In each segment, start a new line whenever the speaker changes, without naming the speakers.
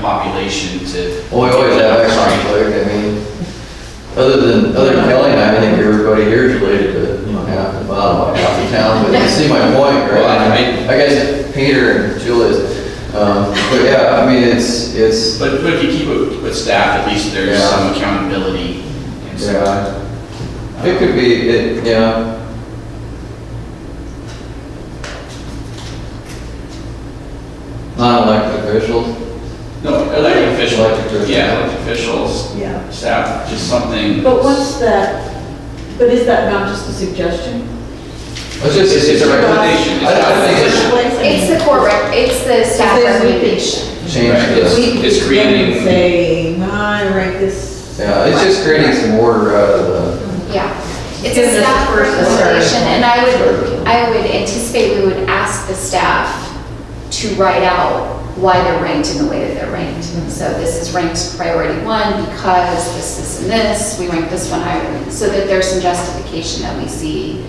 population to.
Well, Oh, we always have that conflict, I mean, other than, other than Kelly and I, I think everybody here is related to, you know, half the bottom, half the town, but you see my point, right?
Well, I-
I guess Peter and Julius, um, but yeah, I mean, it's, it's,
But, but if you keep it with staff, at least there's
Yeah.
some accountability. and some-
yeah. It could be, it, yeah. Non-elected officials,
No, elected
Elected
officials,
officials.
yeah, elected officials,
Yeah.
staff, just something.
But what's that, but is that not just a suggestion?
it's just,
It's- it's a recommendation, it's
I- I
not-
think it's-
It's the core, rec- it's the staff
Because we could-
recommendation.
change
Right,
this.
it's- It's creating.
Say, no, I rank this.
Yeah, it's just creating some order out of the,
Yeah. It's
Gives us
a
a
staff
first start.
recommendation, and I
Start.
would, I would anticipate we would ask the staff to write out why they're ranked in the way that they're ranked. So this is ranked priority one because this, this, and this, we rank this one higher, so that there's some justification that we see.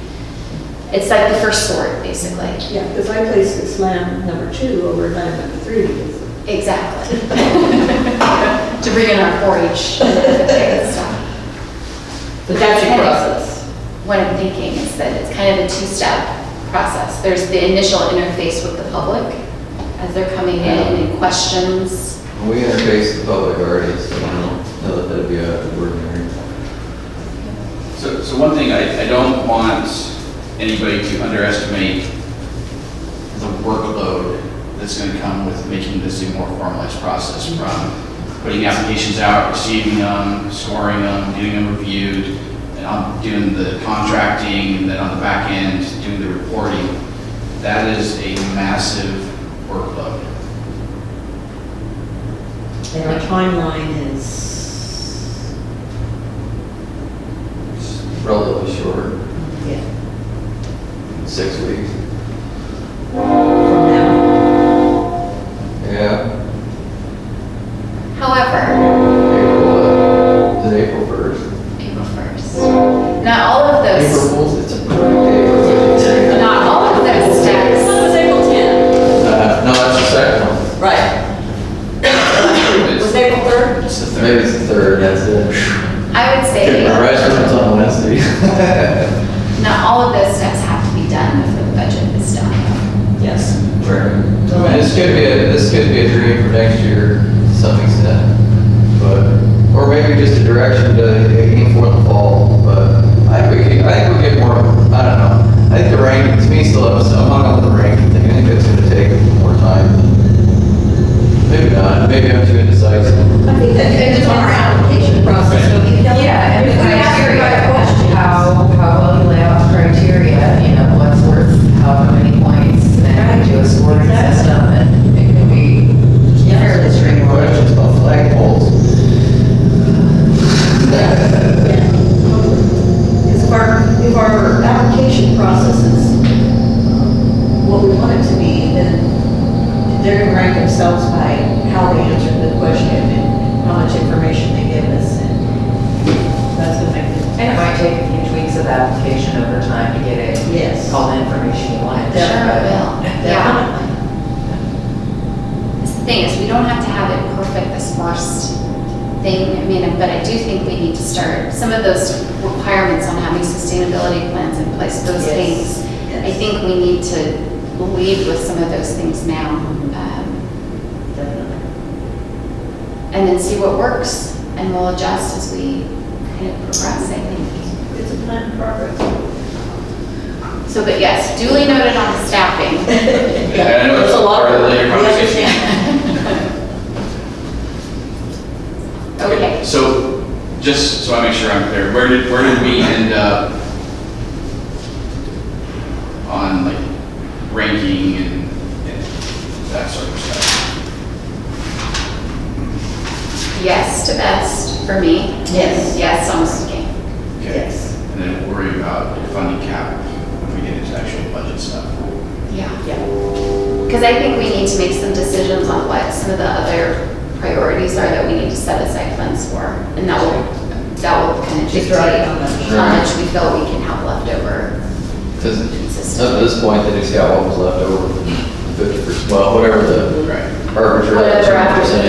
It's like the first sort, basically.
Yeah, because I placed this land number two over land number three.
Exactly. To bring in our 4-H and stuff.
But that's your
And
process.
What I'm thinking is that it's kind of a two-step process. There's the initial interface with the public as they're coming in and questions.
we interface the public already, so I don't know that that'd be out of the ordinary.
So, so one thing, I, I don't want anybody to underestimate the workload that's gonna come with making this a more formalized process from putting applications out, receiving them, scoring them, getting them reviewed, and on doing the contracting, and then on the back end, doing the reporting. That is a massive workload.
And our timeline is,
It's relatively short,
yeah,
six weeks.
from now.
Yeah,
However,
April, uh, is it April first?
April 1st, not all of
April
those,
Fools, it's a perfect day.
not all of those steps,
April 10.
Uh, No, that's the second one,
Right.
It's
Was April 3rd?
it's the
maybe
third.
it's the third, that's it.
I would say,
The rest of it's on Wednesday.
not all of those steps have to be done before the budget is done.
Yes.
I mean, this could be a, this could be a dream for next year to some extent, but, or maybe just a direction to aim for in the fall, but I think we, could- I think we get more, I don't know. I think the ranking, to me, still up, so I'm hung up on the ranking thing, I think it's gonna take more time. Maybe not, maybe I'm too indecisive.
I think that depends on our application process, so if you don't.
Yeah, and
if
if
we
I
ask you about questions,
how, how well you lay out the criteria, you know, what's worth however many points, and then we do a scoring
Exactly.
system, and it can be
Yeah.
fairly straightforward.
Questions about flagpoles.
Because if our, if our application process is um, what we want it to be, then they're gonna rank themselves by how they answered the question and how much information they give us, and that's what makes it,
And it might take a few tweaks of application over time to get it,
yes.
all the information you want.
Sure, Bill, yeah.
Definitely.
That's The thing is, we don't have to have it perfect this first thing, I mean, but I do think we need to start, some of those requirements on having sustainability plans in place, those
Yes,
things. I
yes.
think we need to lead with some of those things now. um, And then see what works, and we'll adjust as we kind of progress, I think.
It's a plan in progress.
So, but yes, duly noted on the staffing.
Yeah, I know it's
There's a lot
part of the
work.
later
We
conversation.
understand.
Okay.
So, just so I make sure I'm clear, where did, where did we end up on like ranking and, and that sort of stuff?
Yes to best for me.
Yes.
Yes on sticking.
Okay.
Yes,
And then worry about the funding cap when we get into actual budget stuff.
Yeah.
yeah.
Because I think we need to make some decisions on what some of the other priorities are that we need to set aside funds for. And that will, that will kind of
Just
dictate
draw it on
how much we feel we can have left over.
Because up to this point, they just got what was left over, fifty percent, well, whatever the
Right.
arbitrary
Whatever
percentage